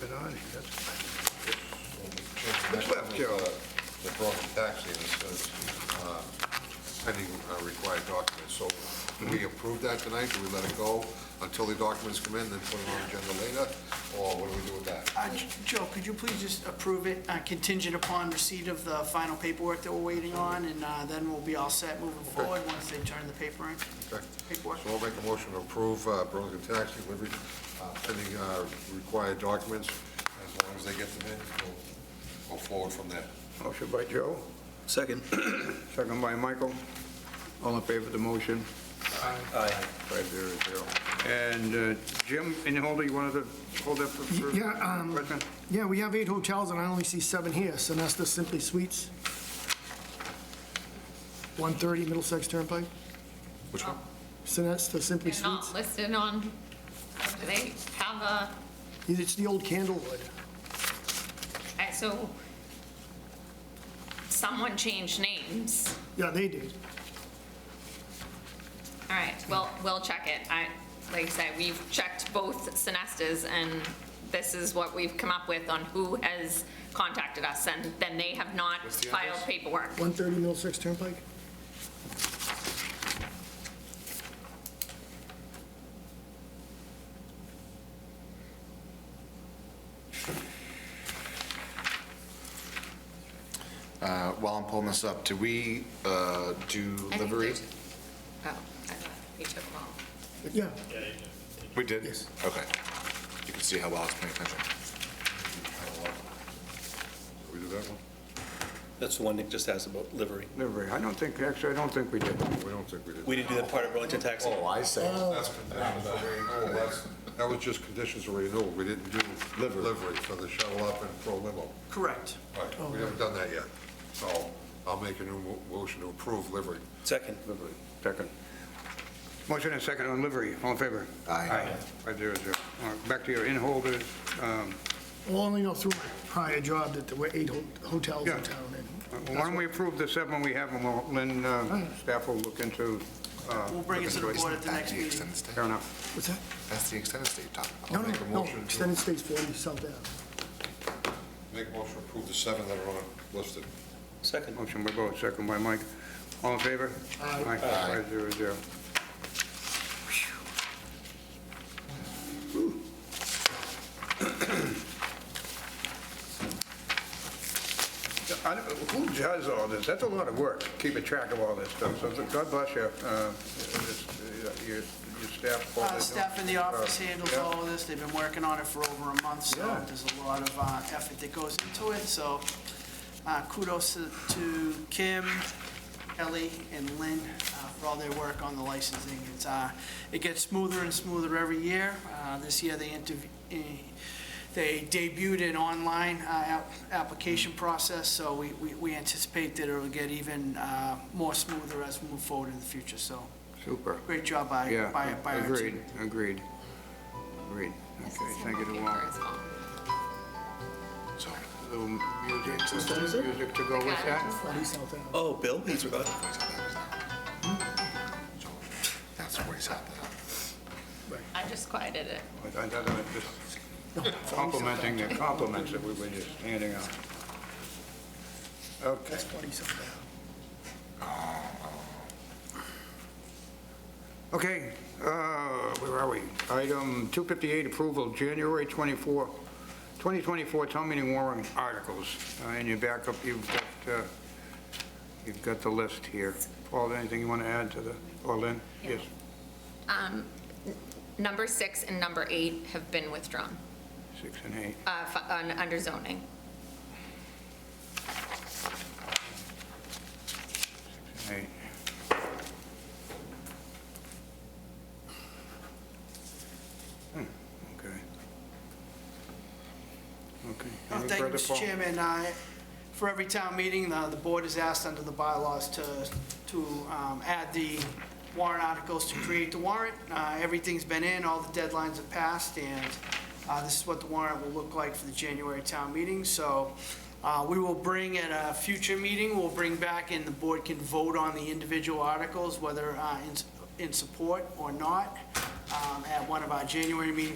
been on here, that's, Next up is, uh, The broken taxi, and it says uh, pending uh, required documents. So do we approve that tonight? Do we let it go until the documents come in, then put it on agenda later? Or what do we do with that? Uh, J- Joe, could you please just approve it uh, contingent upon receipt of the final paperwork that we're waiting on, and uh, then we'll be all set moving forward once they turn the paper in, Okay. paperwork. So I'll make a motion to approve uh, Burlington Taxi delivery uh, pending uh, required documents. As long as they get them in, we'll go forward from there. motion by Joe, Second. second by Michael. All in favor of the motion? Aye. Five zero zero. And uh, Jim, any holder, you wanted to hold up for- for? Yeah, um, question? Yeah, we have eight hotels, and I only see seven here, Sonesta Simply Suites, 130 Middlesex Turnpike, Which one? Sonesta Simply They're not Suites. listed on, do they have a, It's the old Candlewood. uh, so someone changed names. Yeah, they did. All right, well, we'll check it. I, like I said, we've checked both Sinestas and this is what we've come up with on who has contacted us and then they have not filed paperwork. 130 Middlesex Turnpike? Uh, While I'm pulling this up, do we uh, do I think livery? there's- Oh, I thought we took them all. Yeah. We did? Yes. Okay. You can see how well it's paying attention. We do that one? That's the one Nick just asked about livery. Livery, I don't think, actually, I don't think we did. We don't think we did. We didn't do that part of Burlington Taxi. Oh. I see. That's conditions of renewal, that's, that was just conditions of renewal, we didn't do livery for the shuttle up and pro limo. Correct. Right, we haven't done that yet, so I'll make a new mo- motion to approve livery. Second. Livery, second. Motion and second on livery, all in favor? Aye. Five zero zero. All right, back to your in holders. Um, Well, only know through my prior job that there were eight ho- hotels Yeah. in town. and Why don't we approve the seven we have, and we'll, Lynn, uh, staff will look into. uh, We'll bring it to the look into board at the That's next the meeting. extended stay. Fair enough. What's that? That's the extended stay you're talking about. No, I'll make a no, no, motion to- extended stays 40 South Ave. Make a motion to approve the seven that are on listed. Second. Motion by Bo, second by Mike. All in favor? Aye. Five zero zero. I don't- Who does all this? That's a lot of work, keeping track of all this stuff. So God bless you, uh, it's, uh, your your staff. all Uh, they do. Staff in the office Uh, handles yeah. all of this, they've been working on it for over a month, so Yeah. there's a lot of uh, effort that goes into it, so uh, kudos to- to Kim, Kelly, and Lynn uh, for all their work on the licensing. It's, uh, it gets smoother and smoother every year. Uh, This year, they interv- eh, they debuted an online uh, app- application process, so we- we we anticipate that it'll get even uh, more smoother as we move forward in the future, so Super. great job by, by Yeah, by our team. agreed, agreed, agreed. This Okay, is thank you to from all. Paper as well. Little music, music to go with Got it. that. 40 South Ave. Oh, Bill, he's forgot. That's where he's at now. I just quieted it. I- I- I- just Complimenting the compliments that we were just handing out. Okay, That's 40 South Ave. okay, uh, where are we? Item 258, approval, January 24, 2024 town meeting warrant articles. Uh, In your backup, you've got, uh, you've got the list here. Paul, anything you want to add to the, or Lynn? Yes. Um, n- Number six and number eight have been withdrawn, Six and eight. uh, f- on- under zoning. Right. Hmm, Okay. Okay. Oh, Any Thank you, further, Mr. Paul? Chairman. I- For every town meeting, the the board is asked under the bylaws to, to um, add the warrant articles to create the warrant. Uh, Everything's been in, all the deadlines have passed, and uh, this is what the warrant will look like for the January town meeting. So uh, we will bring at a future meeting, we'll bring back, and the board can vote on the individual articles, whether uh, in in support or not, um, at one of our January meetings